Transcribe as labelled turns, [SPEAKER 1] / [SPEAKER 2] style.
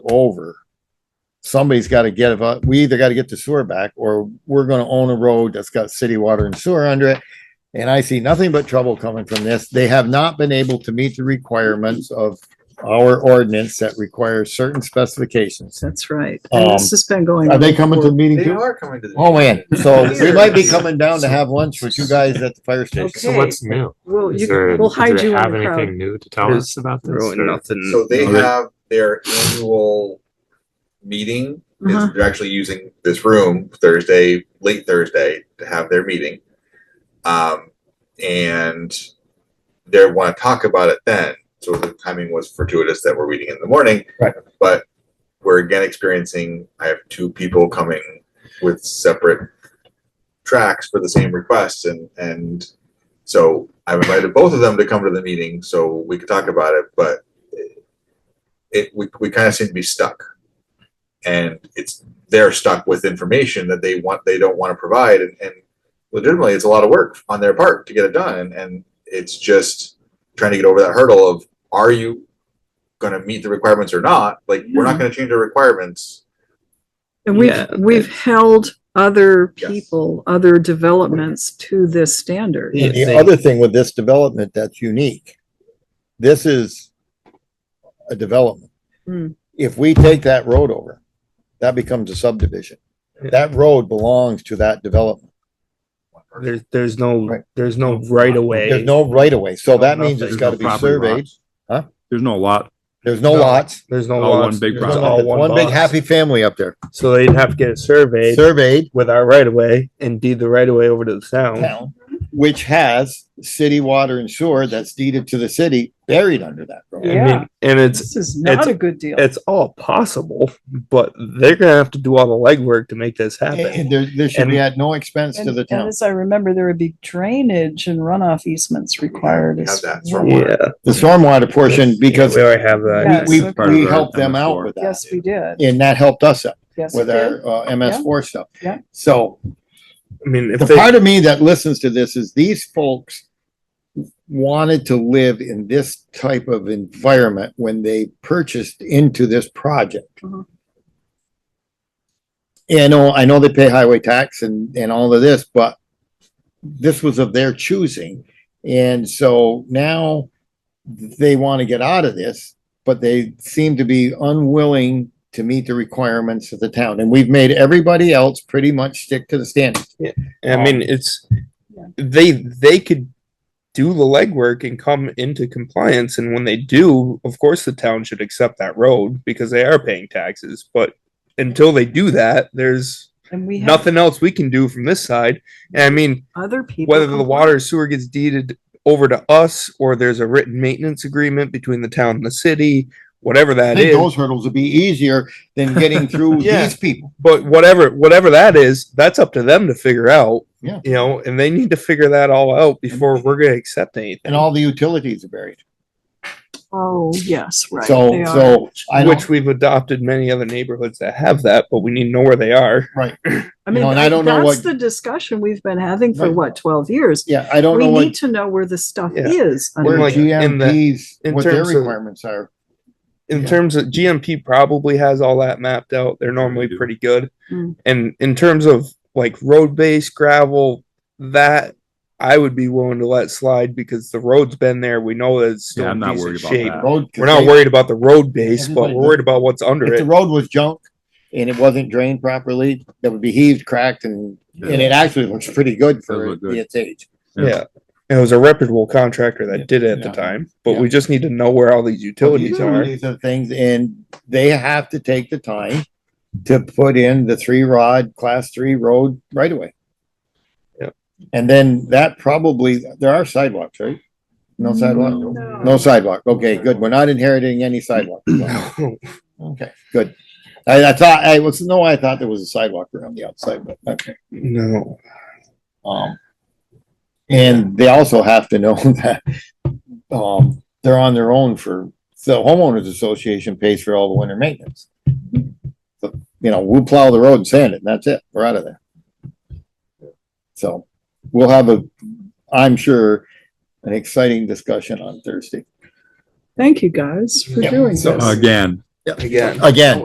[SPEAKER 1] over, somebody's got to get, a- we either got to get the sewer back or we're going to own a road that's got city water and sewer under it. And I see nothing but trouble coming from this. They have not been able to meet the requirements of our ordinance that requires certain specifications.
[SPEAKER 2] That's right. And
[SPEAKER 1] Um,
[SPEAKER 2] this has been going.
[SPEAKER 1] Are
[SPEAKER 2] on
[SPEAKER 1] they coming to the meeting
[SPEAKER 3] They
[SPEAKER 1] too?
[SPEAKER 3] are coming to the.
[SPEAKER 1] Oh, man. So we might be coming down to have lunch with you guys at the fire station.
[SPEAKER 4] So
[SPEAKER 2] Okay.
[SPEAKER 4] what's new?
[SPEAKER 2] Well,
[SPEAKER 4] Is
[SPEAKER 2] you,
[SPEAKER 4] there,
[SPEAKER 2] we'll
[SPEAKER 4] do they
[SPEAKER 2] hide you in
[SPEAKER 4] have
[SPEAKER 2] the crowd.
[SPEAKER 4] anything new to tell us about this?
[SPEAKER 5] Really
[SPEAKER 4] or-
[SPEAKER 5] nothing.
[SPEAKER 3] So
[SPEAKER 1] Mm,
[SPEAKER 3] they
[SPEAKER 5] no,
[SPEAKER 3] have their annual meeting. It's-
[SPEAKER 2] Uh-huh.
[SPEAKER 3] They're actually using this room Thursday, late Thursday, to have their meeting. Um, and they want to talk about it then. So the timing was fortuitous that we're meeting in the morning.
[SPEAKER 1] Right.
[SPEAKER 3] But we're again experiencing, I have two people coming with separate tracks for the same request and, and so I've invited both of them to come to the meeting so we could talk about it, but it, we, we kind of seem to be stuck. And it's, they're stuck with information that they want, they don't want to provide and, and legitimately, it's a lot of work on their part to get it done and, and it's just trying to get over that hurdle of, are you gonna meet the requirements or not? Like, we're not gonna change our requirements.
[SPEAKER 2] And we, we've held other
[SPEAKER 3] Yes.
[SPEAKER 2] people, other developments to this standard.
[SPEAKER 1] The- The
[SPEAKER 4] They-
[SPEAKER 1] other thing with this development that's unique, this is a development.
[SPEAKER 2] Hmm.
[SPEAKER 1] If we take that road over, that becomes a subdivision. That road belongs to that development.
[SPEAKER 5] There's there's no
[SPEAKER 1] Right.
[SPEAKER 5] there's no right of way.
[SPEAKER 1] There's no right of way, so that means it's
[SPEAKER 6] There's
[SPEAKER 1] gotta
[SPEAKER 6] no
[SPEAKER 1] be
[SPEAKER 6] property
[SPEAKER 1] surveyed.
[SPEAKER 6] lots. There's no lot.
[SPEAKER 1] There's no
[SPEAKER 5] No.
[SPEAKER 1] lots.
[SPEAKER 5] There's no
[SPEAKER 6] All
[SPEAKER 5] lots.
[SPEAKER 6] one big
[SPEAKER 5] There's
[SPEAKER 6] Right.
[SPEAKER 5] all one,
[SPEAKER 1] One big
[SPEAKER 5] box.
[SPEAKER 1] happy family up there.
[SPEAKER 5] So they'd have to get it surveyed
[SPEAKER 1] Surveyed
[SPEAKER 5] with our right of way and deed the right of way over to the town.
[SPEAKER 1] town, which has city water and sewer that's deeded to the city buried under that road.
[SPEAKER 5] I mean, and it's
[SPEAKER 2] This is not
[SPEAKER 5] it's-
[SPEAKER 2] a good deal.
[SPEAKER 5] it's all possible, but they're gonna have to do all the legwork to make this happen.
[SPEAKER 1] And there, there should be at no expense
[SPEAKER 2] And
[SPEAKER 1] to the
[SPEAKER 2] and
[SPEAKER 1] town.
[SPEAKER 2] as I remember, there would be drainage and runoff easements required.
[SPEAKER 3] We have
[SPEAKER 2] as
[SPEAKER 3] that
[SPEAKER 2] well.
[SPEAKER 3] from-
[SPEAKER 5] yeah,
[SPEAKER 1] The stormwater portion, because
[SPEAKER 5] we already have that.
[SPEAKER 2] Yeah.
[SPEAKER 1] we,
[SPEAKER 2] Yes.
[SPEAKER 1] we helped them out with that.
[SPEAKER 2] Yes, we did.
[SPEAKER 1] And that helped us out
[SPEAKER 2] Yes, we
[SPEAKER 1] with
[SPEAKER 2] did.
[SPEAKER 1] our, uh, MS four stuff.
[SPEAKER 2] Yeah.
[SPEAKER 1] So
[SPEAKER 5] I mean, if
[SPEAKER 1] the
[SPEAKER 5] they
[SPEAKER 1] part of me that listens to this is these folks wanted to live in this type of environment when they purchased into this project.
[SPEAKER 2] Mhm.
[SPEAKER 1] And I know, I know they pay highway tax and, and all of this, but this was of their choosing. And so now they want to get out of this, but they seem to be unwilling to meet the requirements of the town. And we've made everybody else pretty much stick to the standards.
[SPEAKER 5] I
[SPEAKER 2] Um,
[SPEAKER 5] mean, it's they they could do the legwork and come into compliance, and when they do, of course, the town should accept that road because they are paying taxes. But until they do that, there's
[SPEAKER 2] And we have
[SPEAKER 5] nothing else we can do from this side. And I mean,
[SPEAKER 2] other people.
[SPEAKER 5] whether the
[SPEAKER 2] comply.
[SPEAKER 5] water or sewer gets deeded over to us or there's a written maintenance agreement between the town and the city, whatever
[SPEAKER 1] I
[SPEAKER 5] that
[SPEAKER 1] think
[SPEAKER 5] is.
[SPEAKER 1] those hurdles would be easier than getting through
[SPEAKER 5] Yeah.
[SPEAKER 1] these people.
[SPEAKER 5] but whatever whatever that is, that's up to them to figure out.
[SPEAKER 1] Yeah.
[SPEAKER 5] You know, and they need to figure that all out before we're gonna accept anything.
[SPEAKER 1] And all the utilities are buried.
[SPEAKER 2] Oh, yes, right.
[SPEAKER 1] So,
[SPEAKER 2] they are.
[SPEAKER 1] so I don't,
[SPEAKER 5] which we've adopted many other neighborhoods that have that, but we need to know where they are.
[SPEAKER 2] I
[SPEAKER 1] you
[SPEAKER 2] mean,
[SPEAKER 1] know, and I don't know what-
[SPEAKER 2] that's the discussion we've been having for
[SPEAKER 1] Right.
[SPEAKER 2] what, twelve years?
[SPEAKER 1] yeah, I don't
[SPEAKER 2] We
[SPEAKER 1] know
[SPEAKER 2] need
[SPEAKER 1] what,
[SPEAKER 2] to know where the stuff
[SPEAKER 5] Yeah.
[SPEAKER 2] is.
[SPEAKER 1] where
[SPEAKER 5] like, in the-
[SPEAKER 1] GMP's,
[SPEAKER 5] in
[SPEAKER 1] what their
[SPEAKER 5] terms of-
[SPEAKER 1] requirements are.
[SPEAKER 5] In
[SPEAKER 1] Yeah.
[SPEAKER 5] terms of GMP, probably has all that mapped out. They're normally
[SPEAKER 6] do.
[SPEAKER 5] pretty good.
[SPEAKER 2] Mm.
[SPEAKER 5] And in terms of like road base gravel, that I would be willing to let slide because the road's been there. We know that it's still
[SPEAKER 6] Yeah,
[SPEAKER 5] in
[SPEAKER 6] I'm not
[SPEAKER 5] decent
[SPEAKER 6] worried about
[SPEAKER 5] shape.
[SPEAKER 6] that.
[SPEAKER 1] Road-
[SPEAKER 5] We're not worried about the road base, but
[SPEAKER 1] Everybody-
[SPEAKER 5] we're worried about what's under
[SPEAKER 1] If the
[SPEAKER 5] it.
[SPEAKER 1] road was junk and it wasn't drained properly, that would be heaved, cracked and, and it actually looks pretty good
[SPEAKER 6] Does
[SPEAKER 1] for
[SPEAKER 6] look good.
[SPEAKER 1] its age.
[SPEAKER 6] Yeah.
[SPEAKER 5] Yeah. And it was a reputable contractor that did it at
[SPEAKER 1] Yeah.
[SPEAKER 5] the time, but
[SPEAKER 1] Yeah.
[SPEAKER 5] we just need to know where all these utilities are.
[SPEAKER 1] Utilities and things, and they have to take the time to put in the three rod, class three road right away.
[SPEAKER 5] Yep.
[SPEAKER 1] And then that probably, there are sidewalks, right? No sidewalk? No sidewalk. Okay, good. We're not inheriting any sidewalk. Okay, good. I, I thought, I was, no, I thought there was a sidewalk around the outside, but, okay.
[SPEAKER 5] No.
[SPEAKER 1] Um, and they also have to know that, um, they're on their own for, the homeowners association pays for all the winter maintenance. So, You know, we'll plow the road and sand it, and that's it. We're out of there. So we'll have a, I'm sure, an exciting discussion on Thursday.
[SPEAKER 2] Thank you guys for
[SPEAKER 1] Yeah.
[SPEAKER 2] doing this.
[SPEAKER 1] So, uh,
[SPEAKER 6] Again.
[SPEAKER 5] Again.
[SPEAKER 1] Again,